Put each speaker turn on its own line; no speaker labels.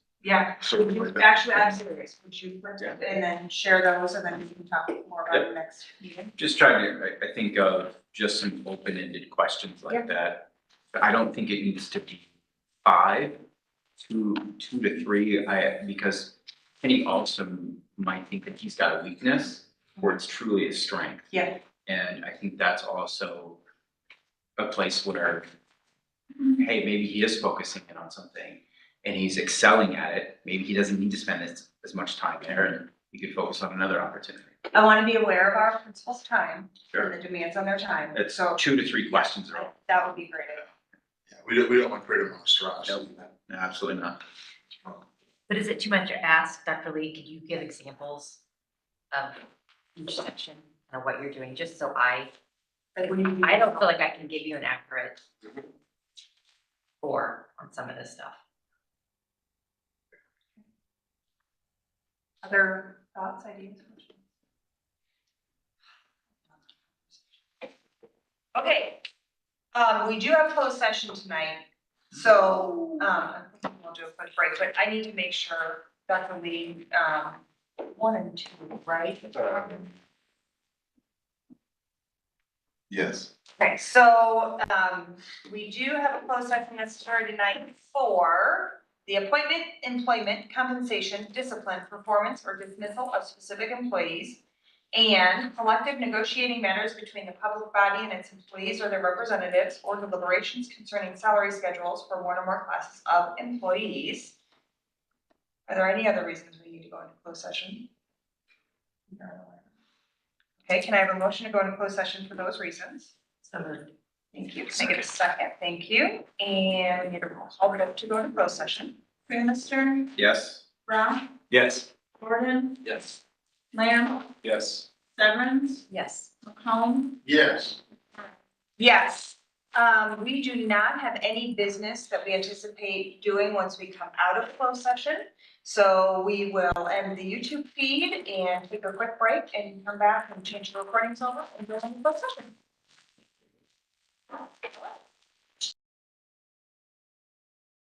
Yeah,
So-
Would you- actually, I'm serious, would you print it and then share those and then we can talk more about it next meeting?
Just trying to, I, I think, uh, just some open-ended questions like that. But I don't think it needs to be five, two, two to three, I, because Kenny also might think that he's got a weakness or it's truly a strength.
Yeah.
And I think that's also a place where,
Mm-hmm.
hey, maybe he is focusing in on something and he's excelling at it. Maybe he doesn't need to spend as, as much time there and he could focus on another opportunity.
I wanna be aware of our principal's time and
Sure.
the demands on their time,
It's
so
two to three questions are all.
that would be great.
Yeah, we don't, we don't want to create a monstrosity.
No, Absolutely not.
But is it too much to ask, Dr. Lee, could you give examples of each section and of what you're doing, just so I,
Like, when you-
I don't feel like I can give you an accurate score on some of this stuff.
Other thoughts, ideas? Okay, um, we do have closed session tonight, so, um, I think we'll do a quick break, but I need to make sure Dr. Lee, um, one and two, right?
Uh,
Yes.
Okay, so, um, we do have a closed session that's started tonight for the appointment, employment, compensation, discipline, performance, or dismissal of specific employees and collective negotiating matters between the public body and its employees or their representatives or deliberations concerning salary schedules for one or more classes of employees. Are there any other reasons we need to go into closed session? Okay, can I have a motion to go into closed session for those reasons?
So moved.
Thank you. Can I get a second? Thank you. And we need a roll call vote to go into closed session. Mr.
Yes?
Brown,
Yes.
Gordon,
Yes.
Lamb,
Yes.
Severance,
Yes.
McComb.
Yes.
Yes. Um, we do not have any business that we anticipate doing once we come out of closed session. So we will end the YouTube feed and take a quick break and come back and change the recordings over and go into closed session.